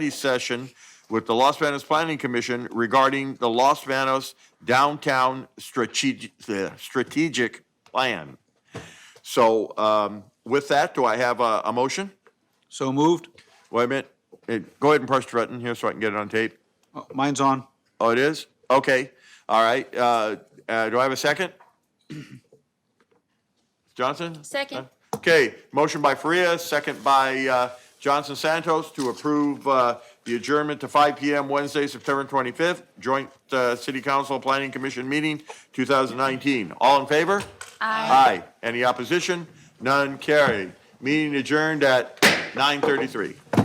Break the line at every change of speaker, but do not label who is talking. session with the Los Banos Planning Commission regarding the Los Banos Downtown Strategic, the Strategic Plan. So um, with that, do I have a, a motion?
So moved.
Wait a minute. Eh, Go ahead and press the button here so I can get it on tape.
Oh, Mine's on.
Oh, it is? Okay, all right. Uh, uh, Do I have a second? Johnson?
Second.
Okay, motion by Faria, second by uh, Johnson Santos to approve uh, the adjournment to 5 PM Wednesday, September 25th, joint uh, City Council Planning Commission meeting 2019. All in favor? Aye. Aye. Any opposition? None carried. Meeting adjourned at 9:33.